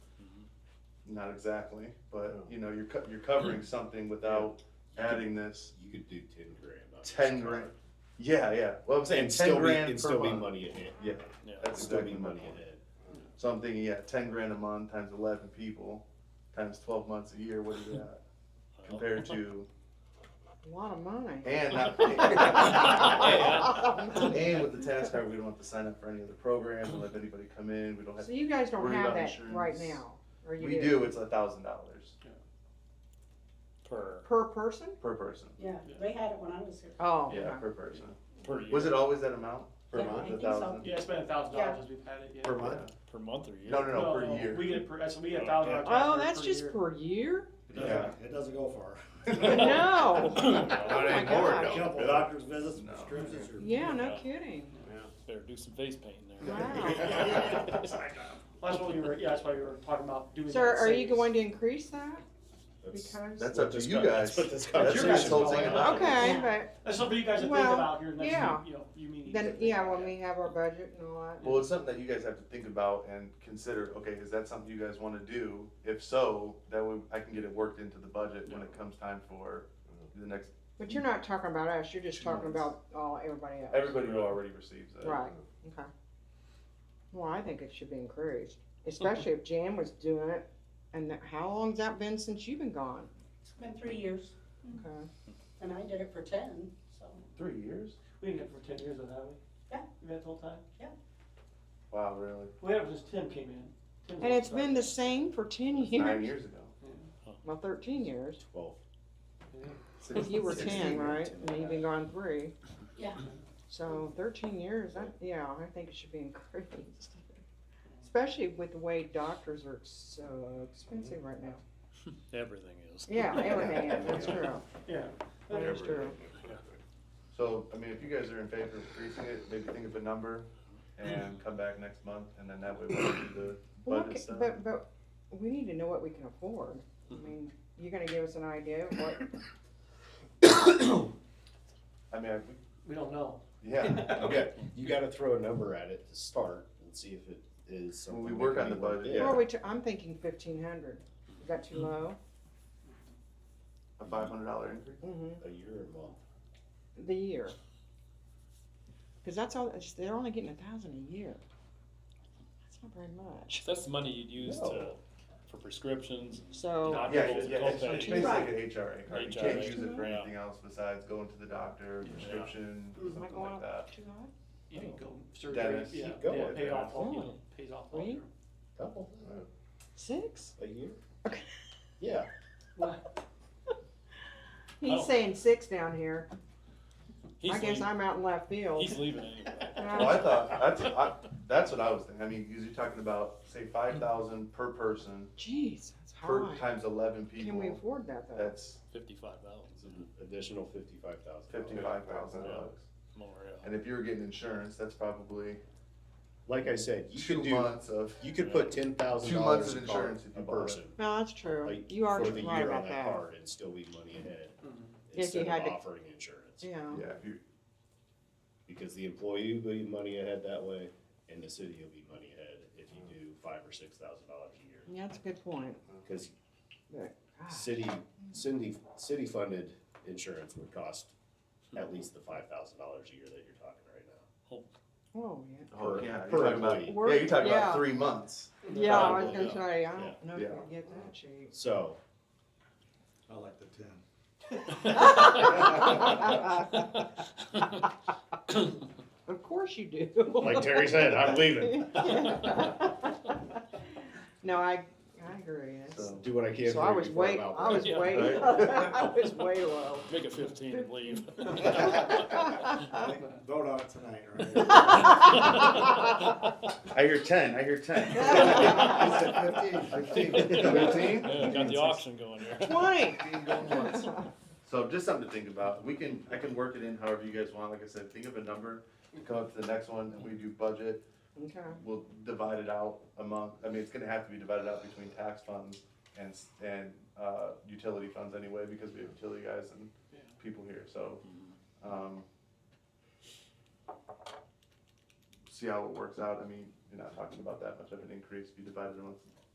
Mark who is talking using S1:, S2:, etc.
S1: Mm-hmm. not exactly, but
S2: No.
S1: you know, you're co- you're covering something without adding this.
S2: You could do ten grand. on this
S1: 10
S2: card.
S1: grand. Yeah, yeah. Well, I'm saying
S2: And
S1: ten
S2: still be,
S1: grand
S2: and
S1: per
S2: still be
S1: month.
S2: money ahead.
S1: Yeah,
S3: Yeah.
S1: that's
S2: Still
S1: exactly
S2: be
S1: my
S2: money
S1: point.
S2: ahead.
S1: So I'm thinking, yeah, ten grand a month times eleven people, times twelve months a year. What is that compared to?
S4: A lot of money.
S1: And not, and with the task card, we don't have to sign up for any other programs. We'll have anybody come in. We don't have.
S4: So you guys don't
S1: Worry
S4: have
S1: about
S4: that right
S1: insurance.
S4: now, or you
S1: We do. It's a thousand dollars
S3: per
S4: Per person?
S1: per person.
S5: Yeah, they had it when I was here.
S4: Oh.
S1: Yeah,
S4: okay.
S1: per person.
S3: per year.
S1: Was it always that amount?
S2: Per
S5: Yeah,
S2: month?
S5: I
S1: The
S5: think so.
S1: thousand?
S6: Yeah, it's been a thousand
S5: Yeah.
S6: dollars since we've had it, yeah.
S2: Per month?
S3: per month or year?
S1: No, no, no, per year.
S6: We get it per, that's, we get a
S3: Oh,
S6: thousand
S3: yeah.
S6: dollars.
S4: Oh, that's just per year?
S7: It
S1: Yeah.
S7: doesn't, it doesn't go far.
S4: No.
S2: Not anymore,
S4: God.
S2: no.
S7: Couple doctor's visits,
S1: No.
S7: prescriptions. or-
S4: Yeah, no kidding.
S3: Better do some face painting there.
S4: Wow.
S6: That's what we were, yeah, that's why we were talking about doing that.
S4: So are you
S6: savings.
S4: going to increase that?
S2: That's-
S4: Because,
S1: That's up to
S2: That's
S1: you
S2: what
S1: guys.
S2: this
S1: That's
S2: conversation
S1: your
S6: your
S1: guys'
S6: guys'
S1: whole
S6: call.
S1: thing about. it.
S4: okay,
S5: Yeah.
S4: but
S6: That's something you guys have to think
S4: Well,
S6: about here next,
S4: yeah.
S6: week, you know, you meetings.
S4: then, yeah, when we have our budget and all that.
S1: Well, it's something that you guys have to think about and consider, okay, is that something you guys wanna do? If so, that way I can get it worked into the budget when it comes time for the next,
S4: But you're not talking about us, you're just
S1: Two
S4: talking
S1: months.
S4: about, oh, everybody else.
S1: everybody who already receives it.
S4: Right, okay. Well, I think it should be increased, especially if Jan was doing it, and that- how long's that been since you've been gone?
S5: It's been three years,
S4: Okay.
S5: and I did it for ten, so.
S1: Three years?
S6: We didn't get it for ten years, though, have we?
S5: Yeah.
S6: We had it the whole time?
S1: Wow, really?
S6: We had it since Tim came in. Tim
S4: And it's
S6: started.
S4: been the same for ten
S1: Nine
S4: years,
S1: years ago.
S4: well, thirteen years.
S2: Twelve.
S4: If you were ten,
S2: Sixteen.
S4: right, and you've been gone three.
S5: Yeah.
S4: So thirteen years, I, yeah, I think it should be increased. Especially with the way doctors are so expensive right now.
S3: Everything is.
S4: Yeah, everything is, that's true,
S6: Yeah.
S4: that is true.
S1: So, I mean, if you guys are in favor of increasing it, maybe think of a number and come back next month and then that way we'll do the
S4: Well,
S1: budget
S4: okay,
S1: stuff.
S4: But, but we need to know what we can afford. I mean, you're gonna give us an idea of what,
S1: I mean, I-
S6: We don't know.
S1: yeah,
S2: Okay, you gotta throw a number at it to start and see if it is something.
S1: When we
S2: that
S1: work
S2: can
S1: on
S2: be
S1: the
S2: worked
S1: budget,
S2: in.
S1: Yeah.
S4: what are we, ta- I'm thinking fifteen hundred. Is that too low?
S1: a five hundred dollar increase.
S4: Mm-hmm.
S2: A year or more.
S4: The year. Cause that's all, it's- they're only getting a thousand a year. That's not very much.
S3: That's the money you'd use to,
S2: No.
S3: for prescriptions.
S4: So.
S3: Not
S1: Yeah,
S3: double
S1: yeah,
S3: the
S1: it's
S3: copay.
S1: it's basically like an HRA card, you can't
S3: HRA,
S1: use
S4: Mm-hmm.
S1: it for
S3: yeah.
S1: anything else besides going to the doctor, prescription,
S5: Mhm.
S1: something
S4: Like,
S1: like that.
S4: Too high?
S6: You can go surgery,
S1: Dennis.
S6: yeah,
S2: Keep
S6: yeah,
S2: going,
S6: pay
S1: Dennis.
S6: off, all- you know,
S3: Oh.
S6: pays off all
S4: Wait.
S6: your.
S2: Couple,
S4: Six?
S2: a year?
S4: Okay.
S2: Yeah,
S4: He's
S3: Oh.
S4: saying six down here.
S3: He's
S4: I guess
S3: leaving-
S4: I'm out in left field.
S3: He's leaving anyway.
S4: Yeah.
S1: Well, I thought, that's, I, that's what I was thinking, I mean, cause you're talking about, say, five thousand per person,
S4: Jeez, that's
S1: per,
S4: high.
S1: times eleven
S4: Can we
S1: people,
S4: afford that though?
S1: that's
S3: Fifty-five thousand,
S2: it's an additional fifty-five thousand.
S1: fifty-five thousand bucks.
S3: more, yeah.
S1: And if you were getting insurance, that's probably
S2: Like I said, you
S1: two
S2: could do,
S1: months of,
S2: you could put ten thousand
S1: Two months of
S2: dollars a car,
S1: insurance if
S2: a
S1: you bought it.
S2: person.
S4: No, that's true.
S2: like,
S4: You are
S2: for the
S4: right
S2: year on
S4: about that.
S2: card And still be money ahead,
S6: Mm-hmm.
S4: If you
S2: instead
S4: had
S2: of
S4: to-
S2: offering insurance.
S4: Yeah.
S1: yeah, if you,
S2: Because the employee will be money ahead that way, and the city will be money ahead if you do five or six thousand dollars a year.
S4: Yeah, that's a good point.
S2: Cause
S4: God.
S2: city, city, city funded insurance would cost at least the five thousand dollars a year that you're talking right now.
S4: Oh, yeah.
S1: oh,
S2: Per-
S1: yeah,
S2: per
S1: you're talking about,
S2: employee.
S1: yeah, you're talking
S4: Yeah.
S1: about three months.
S4: Yeah, I was
S2: Probably,
S4: gonna
S2: yeah.
S4: say, I
S2: Yeah.
S4: don't know if you
S1: Yeah.
S4: can get that cheap.
S2: So,
S7: I like the ten.
S4: Of course you do.
S2: like Terry said, I'm leaving.
S4: No, I, I agree. That's-
S1: So-
S2: Do what I can
S4: So I
S2: for you
S4: was
S2: before
S4: way,
S2: I'm
S4: I
S2: out.
S4: was
S3: Yeah.
S4: way,
S1: Right.
S4: I was way low.
S3: Make it fifteen and leave.
S7: Vote on it tonight, right?
S3: Yeah,
S1: I hear ten, I hear ten. Fifteen?
S3: Got the auction going here.
S4: Twenty.
S1: So just something to think about. We can, I can work it in however you guys want. Like I said, think of a number, come up to the next one, and we do budget.
S4: Okay,
S1: We'll divide it out among, I mean, it's gonna have to be divided out between tax funds and, s- and, uh, utility funds anyway, because we have utility guys and
S6: Yeah.
S1: people here, so, um, see how it works out. I mean, you're not talking about that much of an increase. If you divide it amongst